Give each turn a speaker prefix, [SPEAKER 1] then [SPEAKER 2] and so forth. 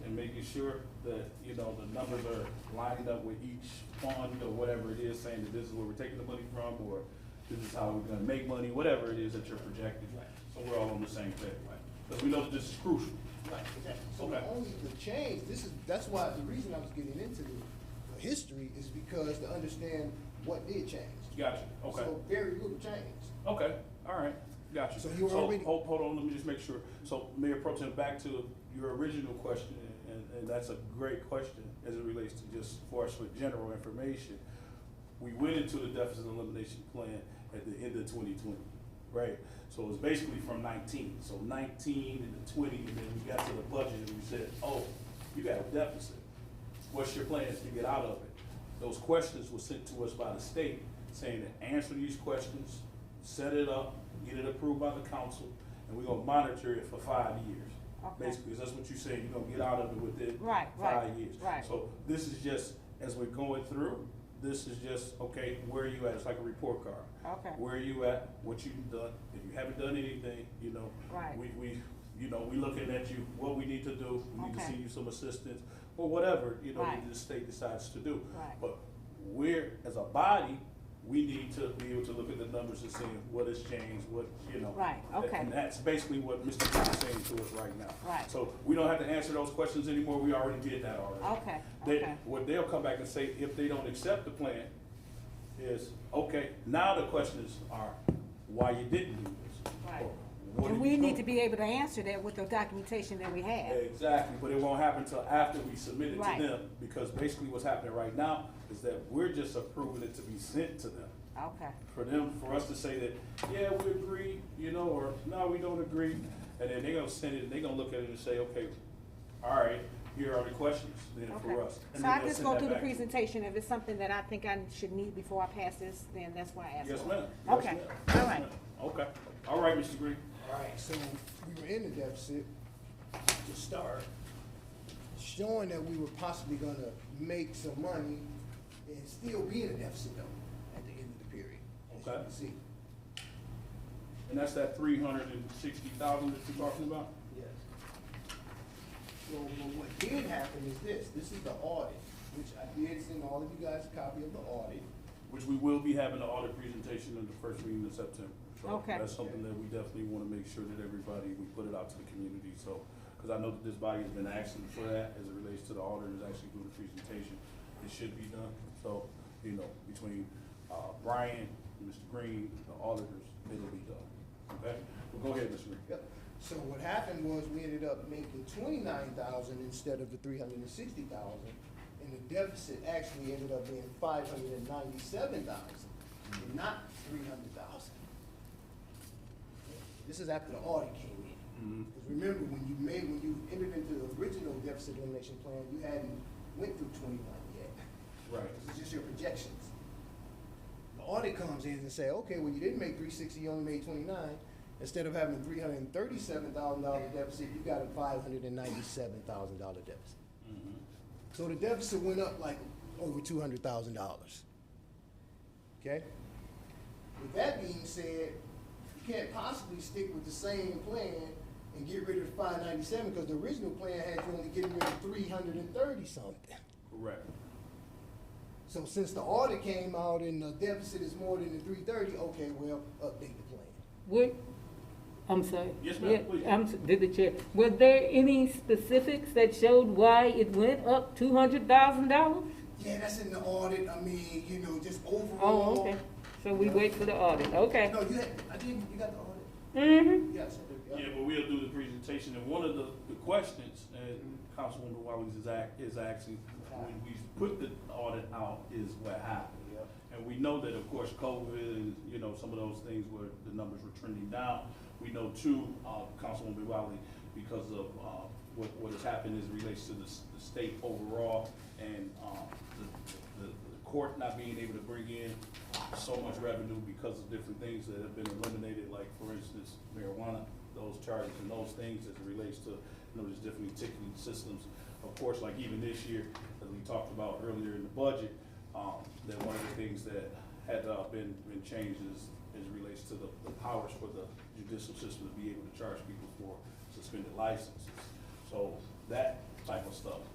[SPEAKER 1] making sure that, you know, the numbers are lined up with each fund or whatever it is, saying that this is where we're taking the money from, or this is how we're gonna make money, whatever it is that you're projecting. So we're all on the same page. Because we know that this is crucial.
[SPEAKER 2] Right, exactly. So the
[SPEAKER 1] Okay.
[SPEAKER 2] only, the change, this is, that's why, the reason I was getting into the uh, history is because to understand what did change.
[SPEAKER 1] Gotcha, okay.
[SPEAKER 2] So very little changed.
[SPEAKER 1] Okay, all right, gotcha.
[SPEAKER 2] So you already-
[SPEAKER 1] Hold, hold on, let me just make sure. So Mayor Pro Tem, back to your original question, and, and that's a great question as it relates to just for us for general information. We went into the deficit elimination plan at the end of twenty twenty, right? So it was basically from nineteen, so nineteen and the twenty, and then we got to the budget and we said, oh, you got a deficit what's your plans to get out of it? Those questions were sent to us by the state, saying to answer these questions, set it up, get it approved by the council, and we're gonna monitor it for five years.
[SPEAKER 3] Okay.
[SPEAKER 1] Basically, 'cause that's what you're saying, you're gonna get out of it within
[SPEAKER 3] Right, right,
[SPEAKER 1] five years.
[SPEAKER 3] right.
[SPEAKER 1] So this is just, as we're going through, this is just, okay, where are you at? It's like a report card.
[SPEAKER 3] Okay.
[SPEAKER 1] Where are you at, what you've done, if you haven't done anything, you know.
[SPEAKER 3] Right.
[SPEAKER 1] We, we, you know, we looking at you, what we need to do, we need to
[SPEAKER 3] Okay.
[SPEAKER 1] see you some assistance, or whatever, you know,
[SPEAKER 3] Right.
[SPEAKER 1] the state decides to do.
[SPEAKER 3] Right.
[SPEAKER 1] But we're, as a body, we need to be able to look at the numbers and see what has changed, what, you know.
[SPEAKER 3] Right, okay.
[SPEAKER 1] And that's basically what Mr. Brown is saying to us right now.
[SPEAKER 3] Right.
[SPEAKER 1] So we don't have to answer those questions anymore, we already did that already.
[SPEAKER 3] Okay,
[SPEAKER 1] They,
[SPEAKER 3] okay.
[SPEAKER 1] what they'll come back and say, if they don't accept the plan, is, okay, now the questions are, why you didn't do this?
[SPEAKER 3] Right.
[SPEAKER 1] Or what
[SPEAKER 3] And
[SPEAKER 1] did
[SPEAKER 3] we
[SPEAKER 1] you
[SPEAKER 3] need
[SPEAKER 1] do?
[SPEAKER 3] to be able to answer that with the documentation that we have.
[SPEAKER 1] Exactly, but it won't happen until after we submit it
[SPEAKER 3] Right.
[SPEAKER 1] to them, because basically what's happening right now is that we're just approving it to be sent to them.
[SPEAKER 3] Okay,
[SPEAKER 1] For them, for us to say that, yeah, we agree, you know, or no, we don't agree, and then they're gonna send it, and they're gonna look at it and say, okay, all right, here are the questions then for
[SPEAKER 3] okay.
[SPEAKER 1] us. And
[SPEAKER 3] So
[SPEAKER 1] then
[SPEAKER 3] I
[SPEAKER 1] they'll
[SPEAKER 3] just
[SPEAKER 1] send
[SPEAKER 3] go
[SPEAKER 1] that
[SPEAKER 3] through the
[SPEAKER 1] back to us.
[SPEAKER 3] presentation, if it's something that I think I should need before I pass this, then that's why I asked.
[SPEAKER 1] Yes,
[SPEAKER 3] for it.
[SPEAKER 1] ma'am. Yes,
[SPEAKER 3] Okay,
[SPEAKER 1] ma'am.
[SPEAKER 3] all
[SPEAKER 1] Yes,
[SPEAKER 3] right,
[SPEAKER 1] ma'am. Okay, all right, Mr. Green.
[SPEAKER 2] Alright. So we were in the deficit to start, showing that we were possibly gonna make some money and still be in a deficit though, at the end of the period. as you
[SPEAKER 1] Okay.
[SPEAKER 2] can See,
[SPEAKER 1] And that's that three hundred and sixty thousand that you're talking about?
[SPEAKER 2] yes. Well, but what did happen is this, this is the audit, which I did send all of you guys a copy of the audit.
[SPEAKER 1] Which we will be having an audit presentation in the first meeting in September. So
[SPEAKER 3] Okay.
[SPEAKER 1] That's something that we definitely want to make sure that everybody, we put it out to the community, so, because I know that this body has been asking for that as it relates to the auditors actually doing the presentation. It should be done, so, you know, between, uh, Brian, Mr. Green, the auditors, it'll be done, okay? Well, go ahead, Mr. Green.
[SPEAKER 2] Yep. So what happened was we ended up making twenty-nine thousand instead of the three hundred and sixty thousand. And the deficit actually ended up being five hundred and ninety-seven thousand, and not three hundred thousand. This is after the audit came in.
[SPEAKER 1] Mhm.
[SPEAKER 2] Because remember, when you made, when you entered into the original deficit elimination plan, you hadn't went through twenty-one yet.
[SPEAKER 1] Right.
[SPEAKER 2] This is just your projections. The audit comes in and say, okay, well, you didn't make three sixty, you only made twenty-nine. Instead of having three hundred and thirty-seven thousand dollar deficit, you got a five hundred and ninety-seven thousand dollar deficit.
[SPEAKER 1] Mhm.
[SPEAKER 2] So the deficit went up like over two hundred thousand dollars. Okay? With that being said, you can't possibly stick with the same plan and get rid of five ninety-seven, because the original plan had you only getting rid of three hundred and thirty something.
[SPEAKER 1] Correct.
[SPEAKER 2] So since the order came out and the deficit is more than the three thirty, okay, well, update the plan.
[SPEAKER 4] What, I'm sorry.
[SPEAKER 1] Yes, ma'am,
[SPEAKER 4] Yeah,
[SPEAKER 1] please.
[SPEAKER 4] I'm, s- did the chair, were there any specifics that showed why it went up two hundred thousand dollars?
[SPEAKER 2] Yeah, that's in the audit, I mean, you know, just overall.
[SPEAKER 4] Oh, okay, so we wait for the audit, okay.
[SPEAKER 2] No, you had, I didn't, you got the audit?
[SPEAKER 4] Mm-hmm,
[SPEAKER 2] Yes, I
[SPEAKER 1] Yeah,
[SPEAKER 2] did,
[SPEAKER 1] but we'll do the presentation, and one of the, the questions, and Councilwoman Wiley's is act, is asking, when we put the audit out, is what happened.
[SPEAKER 2] yeah.
[SPEAKER 1] And we know that, of course, COVID and, you know, some of those things where the numbers were trending down. We know too, uh, Councilwoman Wiley, because of, uh, what, what has happened as it relates to the, s- the state overall and, um, the, the, the court not being able to bring in so much revenue because of different things that have been eliminated, like, for instance, marijuana, those charges and those things as it relates to, you know, just different ticketing systems. Of course, like even this year, as we talked about earlier in the budget, um, that one of the things that had, uh, been, been changed is, is relates to the, the powers for the judicial system to be able to charge people for suspended licenses. So that type of stuff.